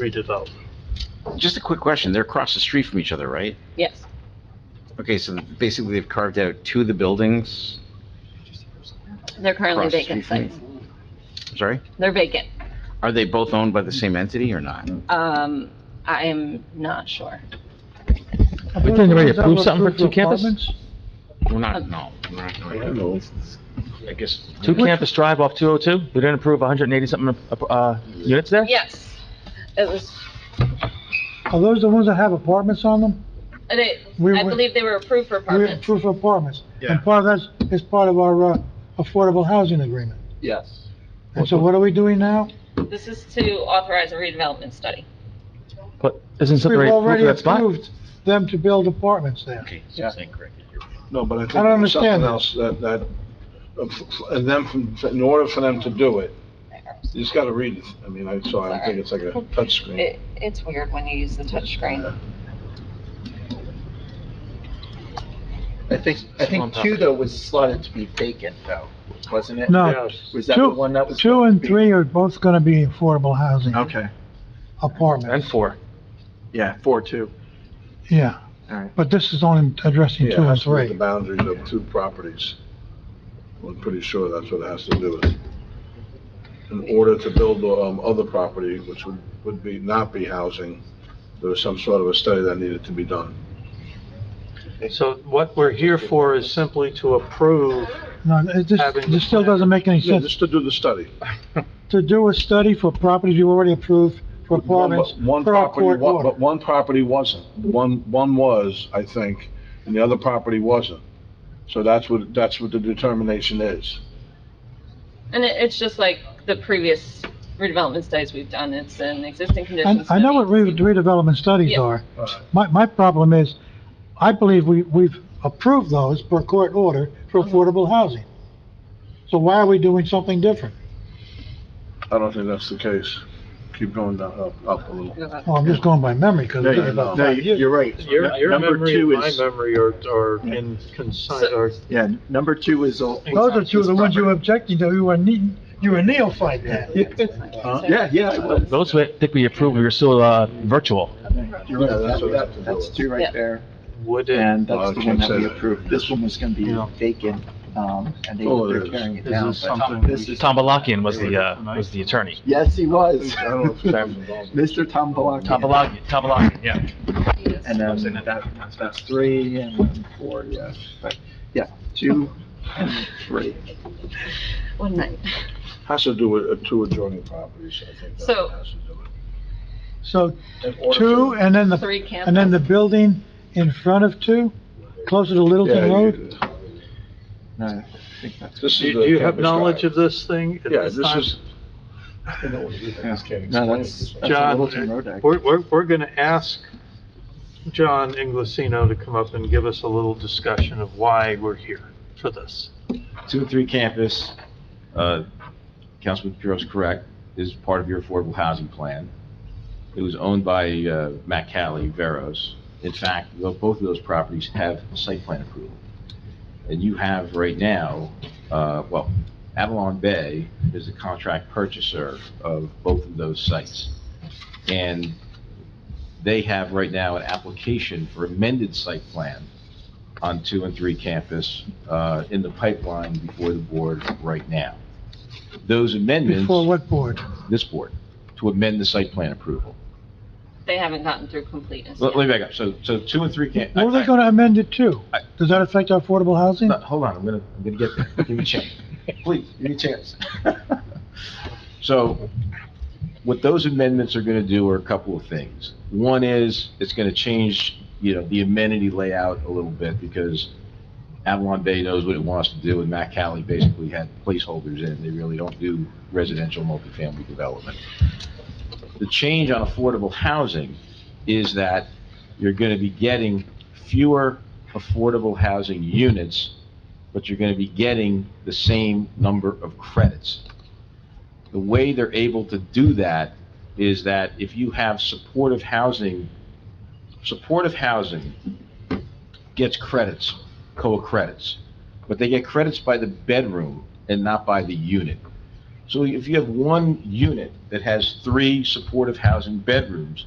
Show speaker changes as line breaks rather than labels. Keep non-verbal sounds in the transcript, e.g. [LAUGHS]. redevelopment.
Just a quick question, they're across the street from each other, right?
Yes,
Okay, so basically they've carved out two of the buildings,
they're currently
Across the
vacant
street from
sites.
sorry?
They're vacant.
Are they both owned by the same entity or not?
Um, I am not sure.
We didn't already approve something for two campus?
We're not, no. we're not doing that. I guess.
Two campus drive off 202? We didn't approve 180 something, uh, uh, units there?
Yes, it was,
Are those the ones that have apartments on them?
they,
We
I
were-
believe they were approved for
We
apartments.
approve of apartments.
Yeah.
And part of that is part of our uh, affordable housing agreement.
Yes.
And so what are we doing now?
This is to authorize a redevelopment study.
But isn't
We've
something already approved
already
for that spot?
approved them to build apartments there.
Okay, so
Yeah.
it's incorrect.
No, but I think.
I don't understand
something else That, that, uh, f- f- and them, from- in order for them to do it, you just gotta read it. I mean, I, so I don't think it's like a touchscreen.
It, it's weird when you use the touchscreen.
I think, I think two though was slotted to be vacant though, wasn't it?
No,
Was that the one that
two,
was?
two and three are both gonna be affordable housing
Okay,
And
apartments,
four.
yeah, four, two.
yeah.
Alright.
But this is only addressing
Yeah,
two
it
and
has to do with
three.
the boundaries of two properties. I'm pretty sure that's what it has to do with. it. In order to build, um, other property, which would, would be, not be housing, there was some sort of a study that needed to be done.
So what we're here for is simply to approve,
No, it just,
Having the
this still
plan.
doesn't make any
Yeah,
sense.
just to do the study.
To do a study for properties you already approved for apartments
One
per our
property,
court
wa-
order.
but one property wasn't. One, one was, I think, and the other property wasn't. So that's what, that's what the determination is.
And it, it's just like the previous redevelopment studies we've done, it's an existing
And
conditions.
I know what
study.
re- redevelopment studies
Yeah.
are. My, my problem is, I believe we, we've approved those per court order for
Mm-hmm.
affordable housing. So why are we doing something different?
I don't think that's the case. Keep going down, up, up a little.
Well, I'm just going by memory, because
No,
it's
you-
been about
no,
five
you-
years.
you're right.
your, your
Number
memory
two
and my
is-
memory are, are in concise, or
Yeah, number two is all.
Those are two of the ones you were objecting to, you were ne, you were neophyte then.
Huh? Yeah, yeah, it was.
Those we, I think we approved, we were still, uh, virtual.
You're right,
Yeah, that's what it has
that's,
to
that-
do
that's
with.
two
Yeah.
right there,
would it,
and that's the
Okay,
one that
so
we
that-
approved. This one was gonna be
Yeah.
vacant, um, and they,
Oh, it
they're
is.
tearing it
This
down.
is
but
something
this
we-
is-
Tom Balakian was the, uh, was the attorney.
Yes, he was.
I don't know if that was
[LAUGHS]
involved.
Mr. Tom Balak.
Tom Balakian, Tom Balakian, yeah.
And then that, that's three and then four, yes, but, yeah, two and three.
One night.
Has to do with uh, two adjoining properties, I think. that's
So-
what it has to do with.
So
In order
two,
for-
and then the,
Three
and then the
campus.
building in front of two, closer to
Yeah,
Littleton
you-
Road?
No, I think that's.
This is
do you- do
the
you have
campus
knowledge
drive.
of this thing? at
Yeah,
this
this
time?
is. I know what it is, I just can't
No,
explain it.
that's, that's a
John,
Littleton Road Act.
We're, we're, we're gonna ask John Inglesino to come up and give us a little discussion of why we're here for this.
two and three campus, uh, Councilman Piro's correct, is part of your affordable housing plan. It was owned by uh, Matt Cali, Veros. In fact, tho- both of those properties have site plan approval. And you have right now, uh, well, Avalon Bay is the contract purchaser of both of those sites. And they have right now an application for amended site plan on two and three campus uh, in the pipeline before the board right now. Those amendments,
Before what board?
this board, to amend the site plan approval.
They haven't gotten through completeness
Let
yet.
let me back up. So, so two and three camp.
What are they gonna amend it to?
I-
Does that affect our affordable housing?
No, Hold on, I'm gonna, I'm gonna get there. Give me a chance. Please, give me a chance. [LAUGHS] So what those amendments are gonna do are a couple of things. One is, it's gonna change, you know, the amenity layout a little bit because Avalon Bay knows what it wants to do and Matt Cali basically had placeholders in. They really don't do residential multifamily development. The change on affordable housing is that you're gonna be getting fewer affordable housing units, but you're going to be getting the same number of credits. The way they're able to do that is that if you have supportive housing, supportive housing gets credits, COA credits, but they get credits by the bedroom and not by the unit. So if you have one unit that has three supportive housing bedrooms,